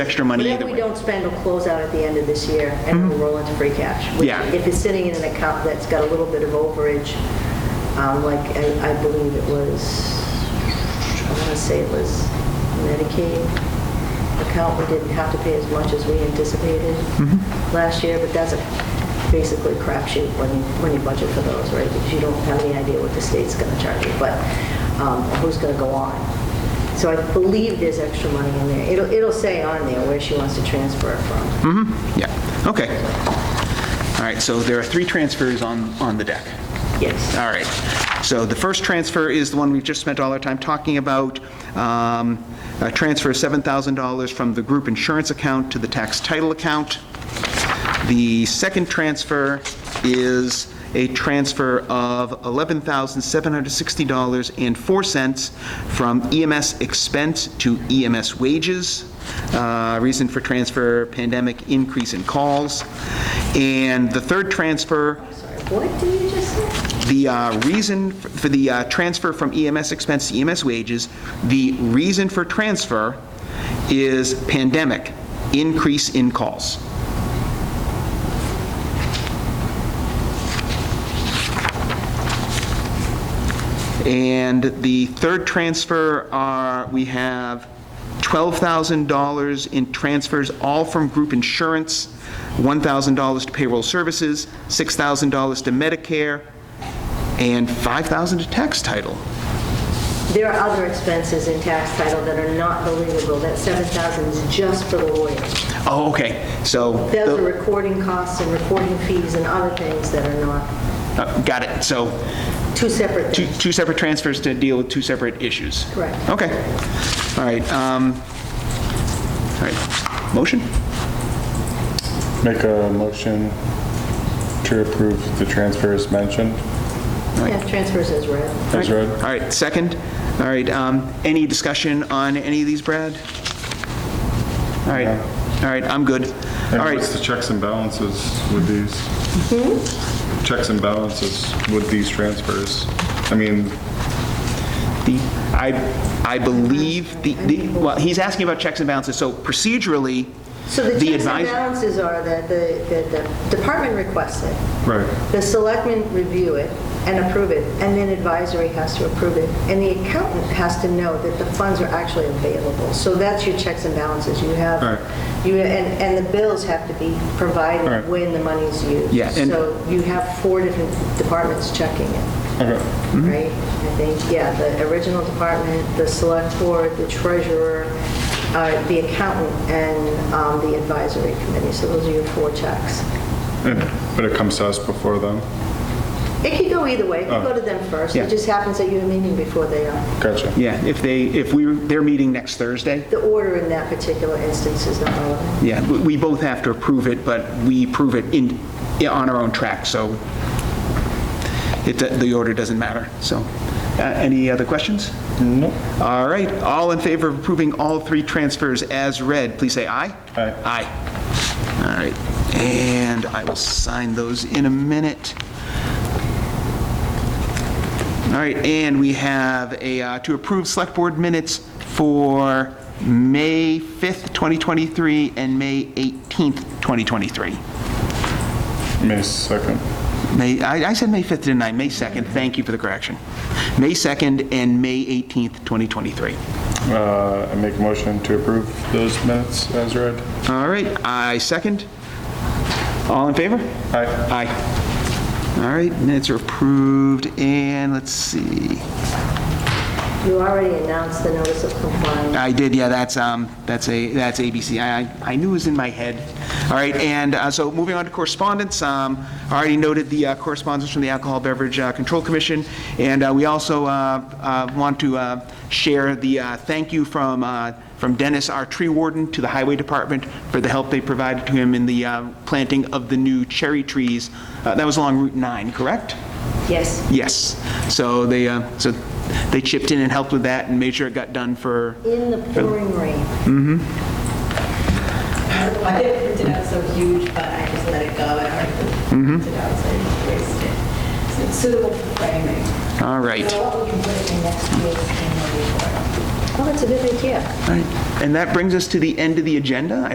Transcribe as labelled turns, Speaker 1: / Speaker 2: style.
Speaker 1: extra money either
Speaker 2: Whatever we
Speaker 1: way. Mm-hmm.
Speaker 2: don't spend will close out at the end of this year, and we'll roll into free cash. which
Speaker 1: Yeah.
Speaker 2: If it's sitting in an account that's got a little bit of overage, um, like I I believe it was, I want to say it was Medicaid account, we didn't have to pay as much as we anticipated last year, but that's a basically crapshoot when you, when you budget for those, right? Because you don't have any idea what the state's going to charge you, but um, who's going to go on? So I believe there's extra money in there. It'll, it'll say on there where she wants to transfer it from.
Speaker 1: Yeah, okay. All right, so there are three transfers on, on the deck.
Speaker 2: Yes.
Speaker 1: All right, so the first transfer is the one we've just spent all our time talking about, um, a transfer of $7,000 from the group insurance account to the tax title account. The second transfer is a transfer of $11,760.04 from EMS expense to EMS wages. Uh, Reason for transfer, pandemic increase in calls. And the third transfer
Speaker 2: What did you just say?
Speaker 1: the uh, reason f- for the uh, transfer from EMS expense to EMS wages, the reason for transfer is pandemic, increase in calls. And the third transfer are, we have $12,000 in transfers, all from group insurance, $1,000 to payroll services, $6,000 to Medicare, and $5,000 to tax title.
Speaker 2: There are other expenses in tax title that are not believable. That 7,000 is just for the lawyers.
Speaker 1: Oh, okay, so,
Speaker 2: Those are recording costs and recording fees and other things that are not,
Speaker 1: uh, got it, so
Speaker 2: two separate
Speaker 1: two
Speaker 2: things.
Speaker 1: two separate transfers to deal with two separate issues.
Speaker 2: Correct.
Speaker 1: Okay, all right, um, all right, motion?
Speaker 3: Make a motion to approve the transfers mentioned
Speaker 2: Yeah, transfers as
Speaker 1: Uh,
Speaker 2: read.
Speaker 3: as read.
Speaker 1: All right, second. All right, um, any discussion on any of these, Brad? All right, all right, I'm good. All
Speaker 3: And
Speaker 1: right,
Speaker 3: what's the checks and balances with these?
Speaker 1: Hmm?
Speaker 3: Checks and balances with these transfers? I mean,
Speaker 1: the, I, I believe the, the- well, he's asking about checks and balances, so procedurally,
Speaker 2: So the
Speaker 1: the
Speaker 2: checks and
Speaker 1: advisor.
Speaker 2: balances are that the, that the department requests it.
Speaker 3: right,
Speaker 2: The selectmen review it and approve it, and then advisory has to approve it. And the accountant has to know that the funds are actually available. So that's your checks and balances. You have,
Speaker 3: Alright.
Speaker 2: you, and, and the bills have to be provided
Speaker 3: Alright.
Speaker 2: when the money's used.
Speaker 1: Yeah, and-
Speaker 2: So you have four different departments checking it,
Speaker 3: okay,
Speaker 1: Mm-hmm.
Speaker 2: right? I think, yeah, the original department, the select board, the treasurer, uh, the accountant, and um, the advisory committee. So those are your four checks.
Speaker 3: And- but it comes to us before them.
Speaker 2: It could go either way. It could
Speaker 3: Oh.
Speaker 2: go to them first.
Speaker 1: Yeah.
Speaker 2: It just happens that you have a meeting before they are.
Speaker 3: Gotcha.
Speaker 1: Yeah, if they, if we, they're meeting next Thursday.
Speaker 2: The order in that particular instance is not relevant.
Speaker 1: Yeah, we- we both have to approve it, but we approve it in, yeah, on our own track, so it, the order doesn't matter, so. uh, Any other questions? No. All right, all in favor of approving all three transfers as read, please say aye.
Speaker 3: Aye.
Speaker 1: Aye. All right, and I will sign those in a minute. All right, and we have a, uh, to approve Select Board minutes for May 5th, 2023, and May 18th, 2023.
Speaker 3: May 2nd.
Speaker 1: May, I I said May 5th, didn't I? May 2nd, thank you for the correction. May 2nd and May 18th, 2023.
Speaker 3: Uh, I make a motion to approve those minutes as read.
Speaker 1: All right, I second. All in favor?
Speaker 3: Aye.
Speaker 1: Aye. All right, minutes are approved, and let's see.
Speaker 2: You already announced the notice of compliance.
Speaker 1: I did, yeah, that's, um, that's a, that's ABC. I, I I knew it was in my head. All right, and, uh, so moving on to correspondence, um, I already noted the uh, correspondence from the Alcohol Beverage uh, Control Commission, and, uh, we also, uh, uh, want to, uh, share the, uh, thank you from, uh, from Dennis, our tree warden, to the Highway Department for the help they provided to him in the, uh, planting of the new cherry trees. Uh, that was along Route 9, correct?
Speaker 2: Yes.
Speaker 1: Yes. So they, uh, so they chipped in and helped with that and made sure it got done for,
Speaker 2: In the pouring rain.
Speaker 1: Mm-hmm.
Speaker 4: I didn't print it out so huge, but I just let it go. I already
Speaker 1: Mm-hmm.
Speaker 4: printed it out, so I just wasted it. So it's suitable for framing.
Speaker 1: all right.
Speaker 4: So what we can put in next year's annual report.
Speaker 2: Oh, that's a good idea.
Speaker 1: All right. And that brings us to the end of the agenda.